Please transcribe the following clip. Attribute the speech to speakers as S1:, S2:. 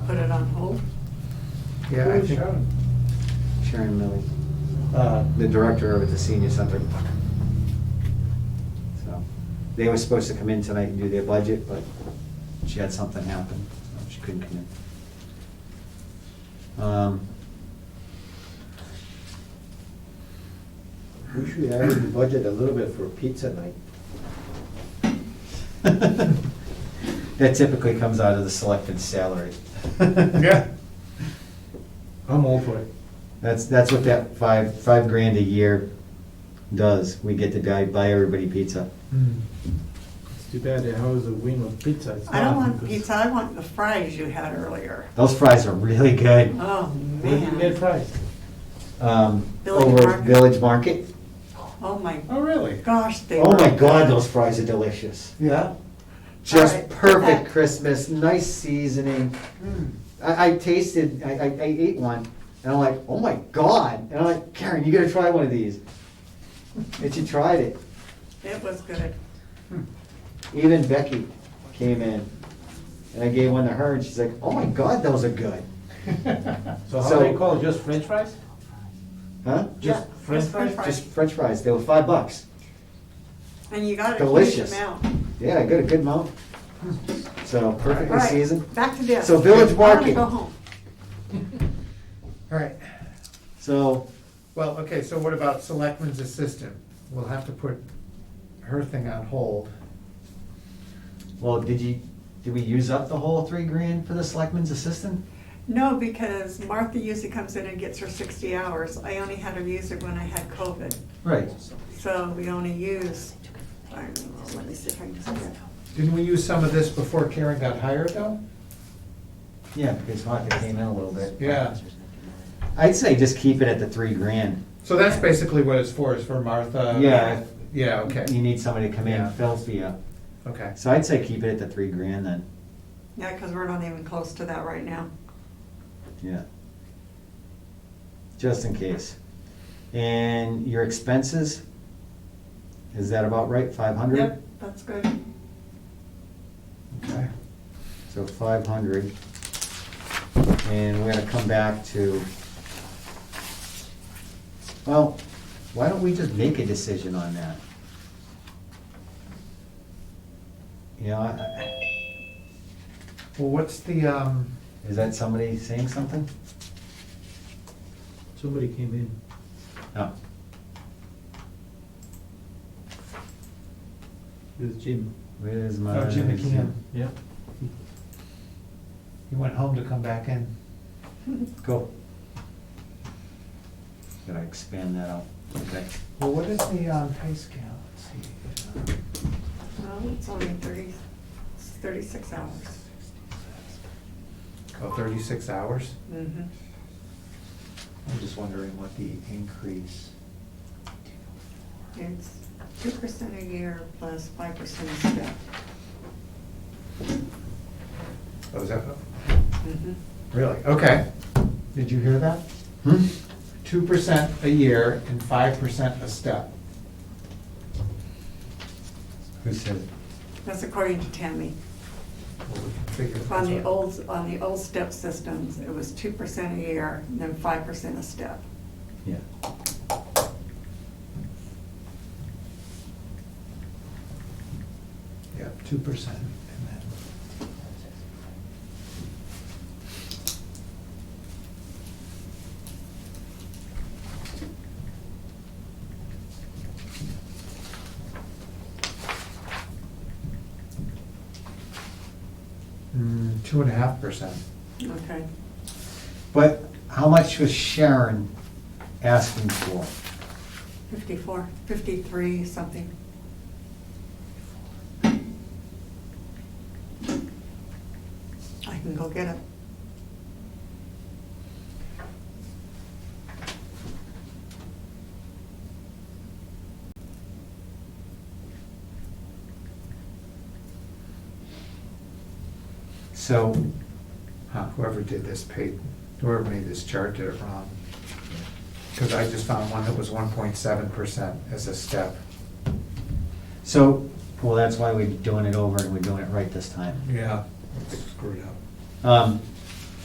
S1: Yeah, I
S2: Who's
S1: think
S2: Sharon?
S1: Sharon Millie,
S3: Uh-huh.
S2: Uh,
S1: the director over at the senior center. So, they were supposed to come in tonight and do their budget, but she had something happen, so she couldn't come in. Um,
S3: We should add in the budget a little bit for pizza night.
S1: That typically comes out of the selectman's salary.
S2: Yeah. I'm all for it.
S1: That's, that's what that five, five grand a year does. We get to buy, buy everybody pizza.
S2: Hmm. It's too bad they house a wing of pizza. It's
S4: I don't
S2: not
S4: want
S2: because-
S4: pizza, I want the fries you had earlier.
S1: Those fries are really good.
S4: Oh,
S2: Where do you get
S4: man.
S2: fries?
S1: Um,
S4: Village
S1: over
S4: Market.
S1: Village Market.
S4: Oh, my
S2: Oh, really?
S4: gosh, they were.
S1: Oh my God, those fries are delicious.
S2: Yeah?
S1: Just
S4: right.
S1: perfect
S4: Okay.
S1: Christmas, nice seasoning.
S4: Mm.
S1: I, I tasted, I, I, I ate one and I'm like, oh my God. And I'm like, Karen, you gotta try one of these. And she tried it.
S4: It was good.
S1: Even Becky came in and I gave one to her and she's like, oh my God, those are good.
S2: So
S1: So-
S2: how they call it, just french fries?
S1: Huh?
S2: Just
S4: Yeah,
S2: french
S4: just french
S2: fries?
S1: Just french fries, they were five bucks.
S4: And you got a huge
S1: Delicious.
S4: amount.
S1: Yeah, I got a good amount. So perfectly
S4: Right,
S1: seasoned.
S4: Back to this.
S1: So Village
S4: I wanna
S1: Market.
S4: go home.
S5: All right,
S1: So,
S5: well, okay, so what about selectman's assistant? We'll have to put her thing on hold.
S1: well, did you, did we use up the whole three grand for the selectman's assistant?
S4: No, because Martha usually comes in and gets her sixty hours. I only had her use it when I had COVID,
S1: Right.
S4: so we only used, I don't know, let me see if I can just get.
S5: Didn't we use some of this before Karen got hired, though?
S1: Yeah, because Hockett came in a little bit.
S5: Yeah,
S1: I'd say just keep it at the three grand.
S5: so that's basically what it's for, is for Martha?
S1: Yeah.
S5: Yeah,
S1: You
S5: okay,
S1: need somebody to come in and
S5: Yeah.
S1: fill for you.
S5: okay.
S1: So I'd say keep it at the three grand then,
S4: Yeah, because we're not even close to that right now.
S1: yeah. Just in case. And your expenses, is that about right, five hundred?
S4: Yep, that's good.
S5: Okay.
S1: So five hundred. And we're gonna come back to, well, why don't we just make a decision on that? You know, I- I-
S5: Well, what's the, um,
S1: is that somebody saying something?
S2: Somebody came in.
S1: No.
S2: With Jim.
S1: Where's my?
S5: oh, Jim McKeon,
S2: Yeah.
S5: he went home to come back in.
S1: Go. Gotta expand that out. Okay.
S5: Well, what is the, um, pay scale? Let's see.
S4: Well, it's only thirty, it's thirty-six hours.
S5: Oh, thirty-six hours?
S4: Mhm.
S3: I'm just wondering what the increase.
S4: It's two percent a year plus five percent a step.
S5: Oh, is that,
S4: Mhm.
S5: really, okay. Did you hear that?
S1: Hmm?
S5: two percent a year and five percent a step.
S1: Who said it?
S4: That's according to Tammy.
S5: Well, we can figure this
S4: On the
S5: out.
S4: old, on the old step systems, it was two percent a year, and then five percent a step.
S1: Yeah.
S5: Yeah, two percent and then. Mm, two and a half percent.
S4: Okay.
S1: But how much was Sharon asking for?
S4: Fifty-four, fifty-three, something. I can go get it.
S1: So,
S5: Huh, uh, whoever did this paid, whoever made this chart did it wrong. Because I just found one that was one point seven percent as a step.
S1: so, well, that's why we're doing it over and we're doing it right this time.
S5: Yeah. Screwed up.
S1: Um,